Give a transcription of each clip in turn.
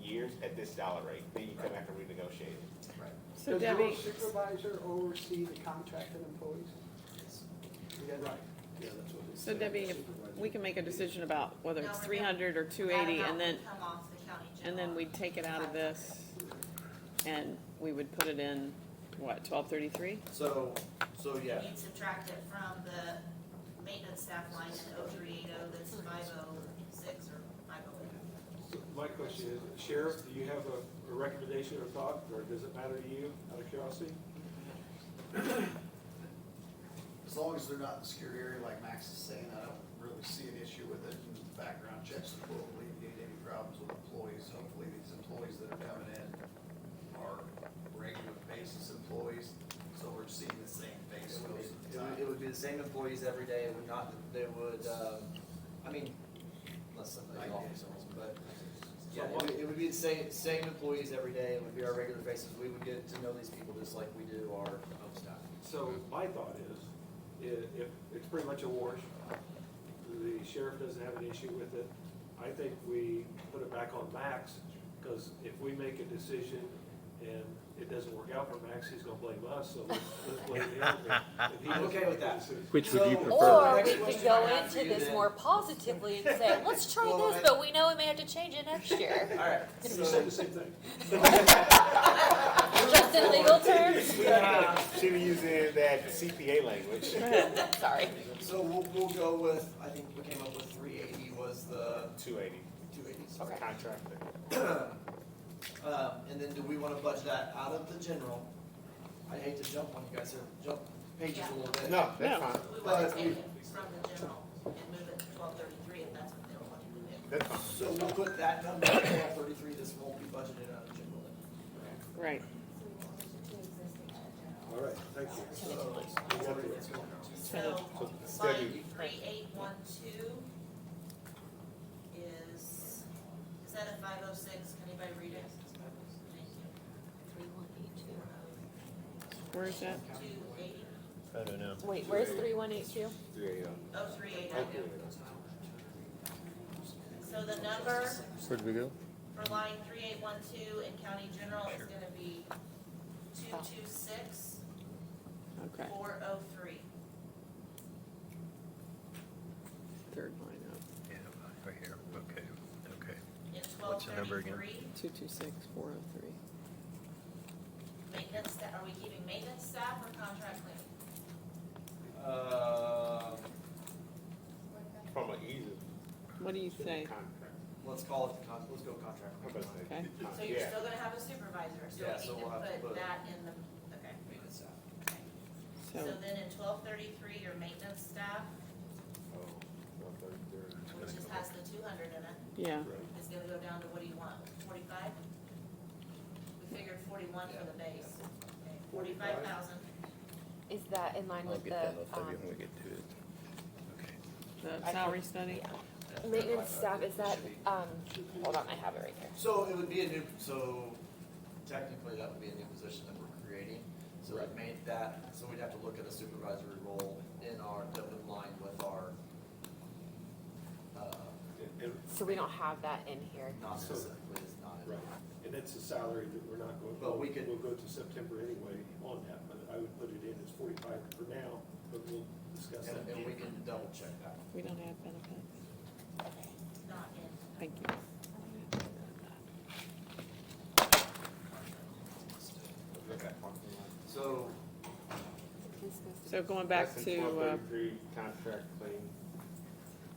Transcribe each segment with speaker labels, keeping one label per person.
Speaker 1: years at this dollar rate, then you come back and renegotiate it.
Speaker 2: Right.
Speaker 3: So
Speaker 4: Does your
Speaker 3: Debbie,
Speaker 4: supervisor oversee the contracted employees? Yeah, Right.
Speaker 2: Yeah, that's what it
Speaker 3: so
Speaker 2: said,
Speaker 3: Debbie, if
Speaker 2: supervisor.
Speaker 3: we can make a decision about whether
Speaker 5: No,
Speaker 3: it's
Speaker 5: we're
Speaker 3: three
Speaker 5: gonna
Speaker 3: hundred or two eighty,
Speaker 5: That
Speaker 3: and then,
Speaker 5: amount would come off the county
Speaker 3: and then
Speaker 5: general.
Speaker 3: we'd take it out of this, and we would put it in, what, twelve thirty-three?
Speaker 2: So, so yeah,
Speaker 5: We'd subtract it from the maintenance staff line in O three eight oh, that's five oh six or five oh eight.
Speaker 6: So My question is, Sheriff, do you have a, a recommendation or thought, or does it matter to you, out of curiosity?
Speaker 7: As long as they're not in the secure area like Max is saying, I don't really see an issue with it. And Background checks will alleviate any problems with employees. Hopefully, these employees that are coming in are regular basis employees, so we're seeing the same face
Speaker 2: It would
Speaker 7: most of the
Speaker 2: be- It
Speaker 7: time.
Speaker 2: would, it would be the same employees every day, it would not, they would, um, I mean, unless
Speaker 7: Like-
Speaker 2: somebody offers someone, but. Yeah, it would, it would be the same, same employees every day, it would be our regular faces, we would get to know these people just like we do our own staff.
Speaker 6: So
Speaker 2: Mm-hmm.
Speaker 6: my thought is, i- if, it's pretty much a wash, the sheriff doesn't have an issue with it, I think we put it back on Max, because if we make a decision and it doesn't work out for Max, he's gonna blame us, so let's, let's blame him. if he
Speaker 2: I'm
Speaker 6: doesn't
Speaker 2: okay with
Speaker 6: make the
Speaker 2: that.
Speaker 6: decision.
Speaker 8: Which would you
Speaker 2: So-
Speaker 8: prefer?
Speaker 9: Or
Speaker 2: Next
Speaker 9: we could
Speaker 2: question I
Speaker 9: go
Speaker 2: have for
Speaker 9: into
Speaker 2: you
Speaker 9: this
Speaker 2: then-
Speaker 9: more positively and say, let's try
Speaker 7: Well,
Speaker 9: this,
Speaker 7: I-
Speaker 9: but we know we may have to change it next year.
Speaker 2: Alright,
Speaker 6: You said
Speaker 2: so,
Speaker 6: the same thing.
Speaker 9: Just in legal terms?
Speaker 1: She was using that CPA language.
Speaker 9: Sorry.
Speaker 2: so we'll, we'll go with, I think we came up with three eighty was the
Speaker 1: Two eighty,
Speaker 2: two eighties.
Speaker 9: Okay.
Speaker 1: contractor.
Speaker 2: Um, and then do we wanna budget that out of the general? I hate to jump on you guys here, jump pages a little bit.
Speaker 1: No,
Speaker 3: No.
Speaker 1: that's fine,
Speaker 5: We
Speaker 2: But
Speaker 5: want to
Speaker 2: we-
Speaker 5: take it from the general and move it to twelve thirty-three, if that's what they don't want to do.
Speaker 1: that's fine.
Speaker 2: So we'll put that number at twelve thirty-three, this won't be budgeted out of general.
Speaker 3: Right.
Speaker 6: All right, thank you.
Speaker 5: So,
Speaker 1: Debbie-
Speaker 5: line three eight one two is, is that a five oh six? Can anybody read it? Thank you.
Speaker 3: Where is that?
Speaker 5: Two eighty,
Speaker 8: I don't know.
Speaker 9: Wait, where's three one eight two?
Speaker 5: oh three eight oh. So the number
Speaker 8: Where did we go?
Speaker 5: for line three eight one two in county general is gonna be two two six
Speaker 3: Okay,
Speaker 5: four oh three.
Speaker 3: third line up,
Speaker 4: Yeah, right here, okay, okay.
Speaker 5: In twelve
Speaker 4: What's the number again?
Speaker 5: thirty-three,
Speaker 3: two two six, four oh three.
Speaker 5: maintenance, sta- are we keeping maintenance staff or contract cleaning?
Speaker 2: Uh,
Speaker 1: From an easy
Speaker 3: What do you say?
Speaker 1: contract.
Speaker 2: let's call it, the con- let's go contract.
Speaker 1: I'm about to say,
Speaker 3: Okay.
Speaker 1: con-
Speaker 5: So you're
Speaker 1: Yeah,
Speaker 5: still gonna have a supervisor, so
Speaker 2: Yeah, so
Speaker 5: we
Speaker 2: we'll have to
Speaker 5: can
Speaker 2: put-
Speaker 5: put that in the, okay.
Speaker 2: Maintenance staff.
Speaker 3: So,
Speaker 5: So then in twelve thirty-three, your maintenance staff,
Speaker 1: oh, one thirty-three.
Speaker 5: which just has the two hundred in it,
Speaker 3: yeah,
Speaker 5: is gonna go down to, what do you want, forty-five? We figured forty-one for the base, forty-five thousand,
Speaker 10: Is that in line
Speaker 4: I'll
Speaker 10: with
Speaker 4: get
Speaker 10: the,
Speaker 4: that off of
Speaker 10: um,
Speaker 4: you when we get to it.
Speaker 3: the salary study?
Speaker 10: maintenance staff, is that, um, hold on, I have it right here.
Speaker 2: So it would be a new, so technically that would be a new position that we're creating. So that made that, so we'd have to look at a supervisory role in our, that would align with our, uh,
Speaker 6: And- and-
Speaker 10: So we don't have that in here.
Speaker 2: not specifically, it's not in.
Speaker 6: Right, and that's a salary that we're not going,
Speaker 2: But we could-
Speaker 6: we'll go to September anyway on that, but I would put it in as forty-five for now, but we'll discuss that.
Speaker 2: And, and we can double check that.
Speaker 3: We don't have benefits.
Speaker 5: not in.
Speaker 3: Thank you.
Speaker 2: So,
Speaker 3: So going back
Speaker 1: That's in
Speaker 3: to, uh,
Speaker 1: 1233 Contract claim,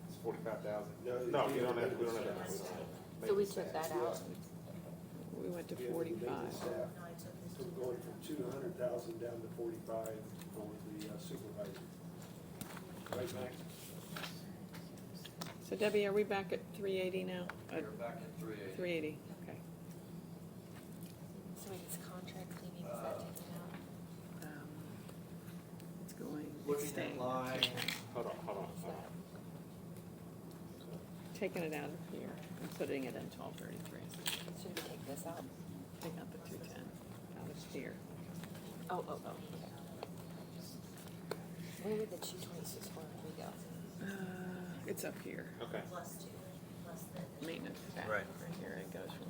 Speaker 1: it's forty-five thousand.
Speaker 6: No,
Speaker 1: No, we
Speaker 6: you
Speaker 1: don't
Speaker 6: don't
Speaker 1: have,
Speaker 6: have
Speaker 1: we don't
Speaker 6: to.
Speaker 1: have that.
Speaker 10: So we took that out.
Speaker 3: we went to
Speaker 6: We have the
Speaker 3: forty-five.
Speaker 6: maintenance staff,
Speaker 5: No, I took this
Speaker 6: So
Speaker 5: to.
Speaker 6: we're going from two hundred thousand down to forty-five for the uh, supervisor. Right, Max?
Speaker 3: So Debbie, are we back at three eighty now? Uh,
Speaker 2: we're back at three eighty.
Speaker 3: Three eighty, okay.
Speaker 10: So it's contract cleaning, is that taken out?
Speaker 3: Um, It's going, it's
Speaker 2: Looking at
Speaker 3: staying.
Speaker 2: line,
Speaker 1: Hold on, hold on, hold on.
Speaker 3: Taking it out of here and putting it in twelve thirty-three.
Speaker 10: Should we take this out?
Speaker 3: Take out the two ten out of here.
Speaker 10: Oh, oh, oh, okay. Where did the two twenty-six four we go?
Speaker 3: Uh, It's up here,
Speaker 1: Okay.
Speaker 5: Plus two, plus the.
Speaker 3: maintenance staff.
Speaker 4: Right.
Speaker 3: Right here, it goes from